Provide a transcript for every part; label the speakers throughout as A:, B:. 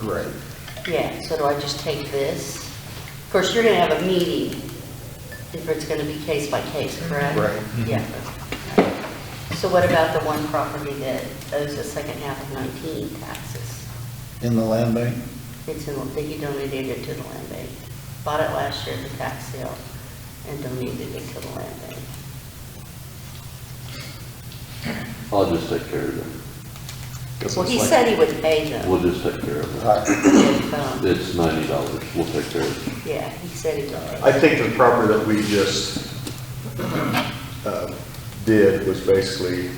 A: Right.
B: Yeah, so do I just take this? Of course, you're gonna have a meeting, if it's gonna be case by case, correct?
A: Right.
B: Yeah.
C: Mm-hmm.
B: So what about the one property that owes the second half of 19 taxes?
A: In the land bank?
B: It's in, that you donated it to the land bank. Bought it last year at the tax sale and donated it to the land bank.
C: I'll just take care of
B: Well, he said he would pay
C: it.
B: them
C: We'll just take care of it.
A: Right.
B: if, um,
C: It's ninety dollars. We'll take care of it.
B: yeah, he said he would pay them.
D: I think the proper that we just um, did was basically,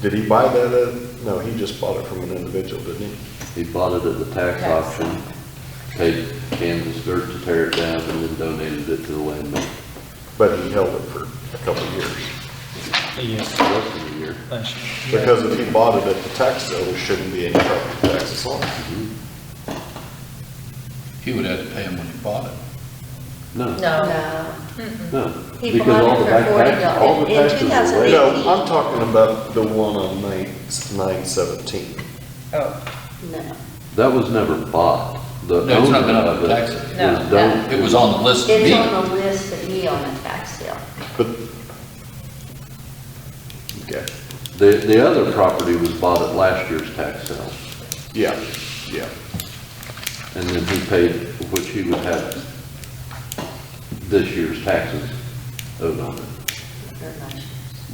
D: did he buy that? uh, No, he just bought it from an individual, didn't he?
C: He bought it at the tax auction, paid Kansas Dirt to tear it down, and then donated it to the land bank.
D: But he held it for a couple of years.
E: Yes,
C: Less than a year.
E: last year.
D: Because if he bought it at the tax sale, there shouldn't be any property taxes on it.
F: He would have to pay him when he bought it.
C: No,
G: No,
B: No.
C: no.
B: He
C: Because
B: bought
C: all
B: it
C: the
B: for
C: back taxes-
B: $40.
C: all the
B: In
C: taxes were
B: 2008.
C: waived.
D: No, I'm talking about the one on nine, nine seventeen.
G: oh,
B: No.
C: That was never bought. The
F: No, it's
C: owner
F: not been on
C: of
F: the
C: it
F: tax.
C: was
G: No, no.
C: don-
F: It was on the list to
B: It's
F: be.
B: on the list to be on the tax sale.
D: But, okay,
C: The, the other property was bought at last year's tax sale,
D: yeah, yeah.
C: and then he paid, which he would have this year's taxes owed on it,
B: Very much.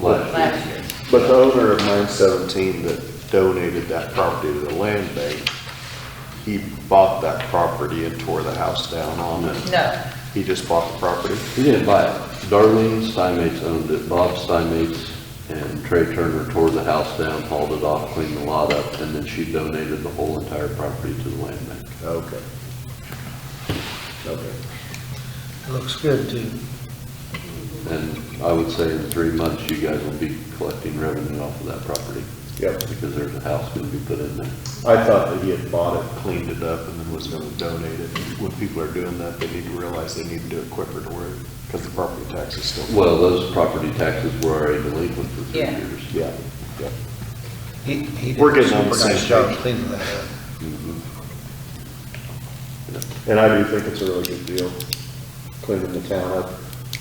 C: last
G: last
C: year.
G: year.
D: But the owner of nine seventeen that donated that property to the land bank, he bought that property and tore the house down on it.
G: No,
D: He just bought the property?
C: He didn't buy it. Darlene Steinmates owned it, Bob Steinmates and Trey Turner tore the house down, hauled it off, cleaned the lot up, and then she donated the whole entire property to the land bank.
D: Okay. Okay.
E: Looks good, too.
C: And I would say in three months, you guys will be collecting revenue off of that property.
D: Yep.
C: Because there's a house going to be put in there.
D: I thought that he had bought it, cleaned it up, and then was gonna donate it. When people are doing that, they need to realize they need to do it quicker to where, because the property tax is still.
C: Well, those property taxes were already delinquent for three
G: Yeah.
C: years.
D: Yeah, yeah.
E: He, he did
D: We're
E: a
D: getting on
E: super
D: the same
E: nice job
D: page.
E: cleaning that up.
D: And I do think it's a really good deal, cleaning the town up.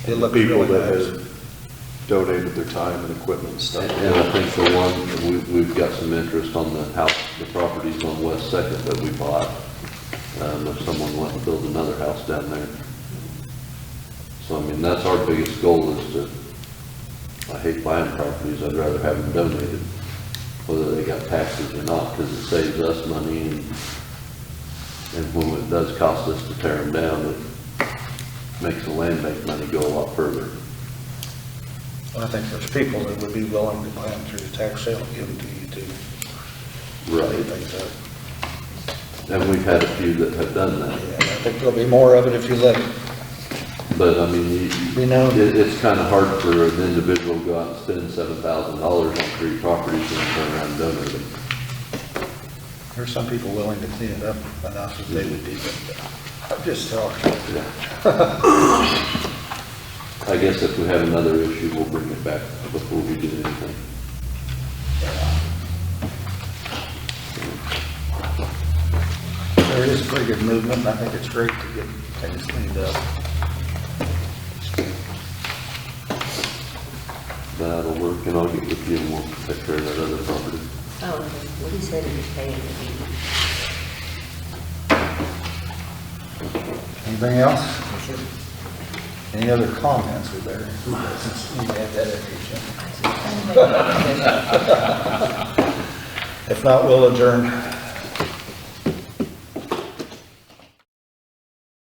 E: It looked
D: People
E: really
D: that
E: nice.
D: have donated their time and equipment and stuff.
C: And I think the one, we, we've got some interest on the house, the properties on West Second that we bought. Um, if someone wanted to build another house down there. So I mean, that's our biggest goal is to, I hate buying properties, I'd rather have them donated, whether they got taxes or not, because it saves us money and, and when it does cost us to tear them down, it makes the land bank money go a lot further.
E: I think there's people that would be willing to buy them through the tax sale, and give them to you, too. I think so.
C: And we've had a few that have done that.
E: Yeah, I think there'll be more of it if you let it.
C: But I mean, you,
E: We know.
C: It, it's kind of hard for an individual to go out and spend seven thousand dollars on three properties and turn around and donate them.
E: There's some people willing to clean it up enough that they would be, but I'm just talking.
C: I guess if we have another issue, we'll bring it back before we do anything.
E: There is pretty good movement, and I think it's great to get things cleaned up.
C: That'll work, and I'll get with you and we'll take care of that other property.
B: Oh, well, he said he was paying the meeting.
E: Anything else? Any other comments were there? Since we had that at the agenda. If not, we'll adjourn.